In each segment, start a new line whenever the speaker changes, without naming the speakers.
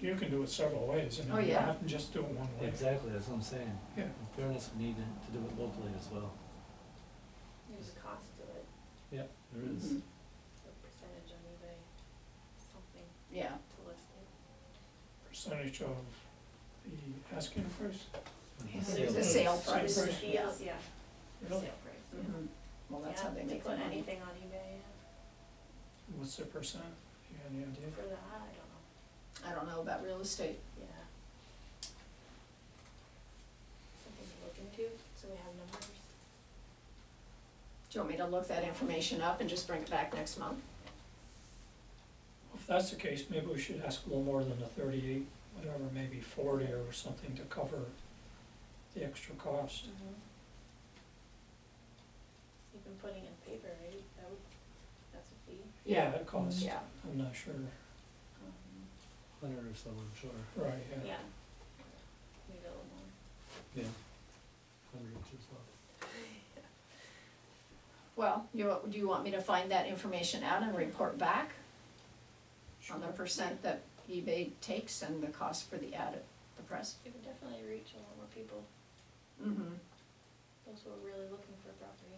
you can do it several ways, and
Oh,
you
yeah.
don't have to just do it one way.
Exactly, that's what I'm saying.
Yeah.
In fairness, we need to- to do it locally as well.
There's a cost to it,
Yep. There is.
Mhm.
a percentage on eBay, something
Yeah,
to listen.
Percentage of the asking price,
Yes,
Sale
it's a
price.
sale
Sale
price,
price.
yeah.
Yeah.
really?
Sale price, yeah.
Mhm. Well, that's how
Yeah,
they
they
make
put
their money.
anything on eBay yeah.
What's the percent? You got any idea?
for that, I don't know,
I don't know about real estate.
yeah. Something to look into, so we have numbers.
Do you want me to look that information up and just bring it back next month?
If that's the case, maybe we should ask a little more than the thirty-eight, whatever, maybe forty or something to cover the extra cost.
Mm-hmm.
Even putting in paper, right, that would, that's a fee.
Yeah, it costs,
Yeah.
I'm not sure,
Um,
Mm-hmm.
Hundred or so, I'm sure.
right, yeah.
Yeah. Maybe a little more.
Yeah. Hundred or so.
Well, you, do you want me to find that information out and report back on the
Sure.
percent that eBay takes and the cost for the ad at the press?
You could definitely reach a lot more people,
Mm-hmm.
those who are really looking for property.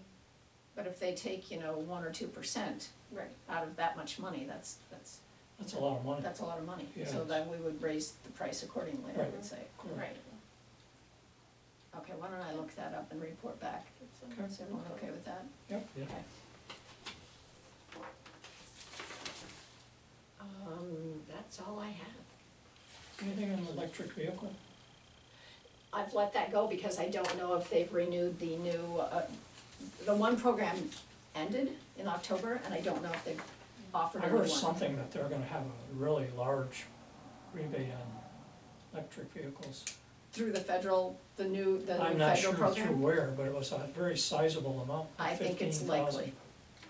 But if they take, you know, one or two percent
Right.
out of that much money, that's, that's,
That's a lot of money,
that's a lot of money. So
Yes.
then we would raise the price accordingly, I would
Right.
say.
correct.
Right.
Okay, why don't I look that up and report back?
It's a-
Okay.
Is everyone okay with that?
Yep.
Yeah.
Okay. Um, that's all I have.
Anything on electric vehicle?
I've let that go because I don't know if they've renewed the new, uh, the one program ended in October, and I don't know if they've offered
I
another one.
heard something that they're gonna have a really large rebate on electric vehicles.
Through the federal, the new, the
I'm
new
not
federal
sure
program?
through where, but it was a very sizable amount,
I think it's
15,000.
likely.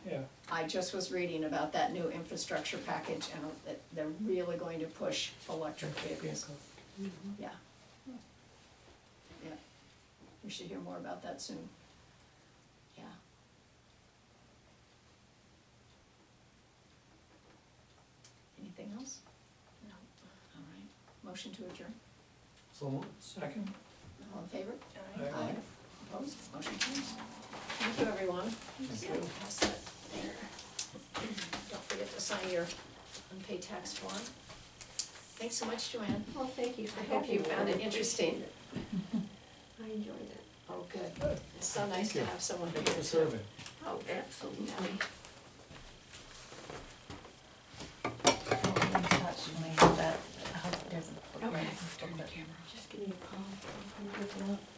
Yeah,
I just was reading about that new infrastructure package, and that they're really going to push electric vehicles. Yeah. Yeah. We should hear more about that soon. Yeah. Anything else?
No.
All right. Motion to adjourn.
So moved.
second?
All in favor?
Aye.
Opposed? Motion carries. Thank you, everyone.
Thank you.
Pass that there. Don't forget to sign your unpaid tax form. Thanks so much, Joanne.
Well, thank you for
I hope
having me.
you found it interesting.
I enjoyed it.
Oh, good. It's so nice to
you.
have someone here.
Thank you for serving.
Oh, absolutely.
That, I hope it doesn't.
Okay.
Just give me a call. I'll come pick it up.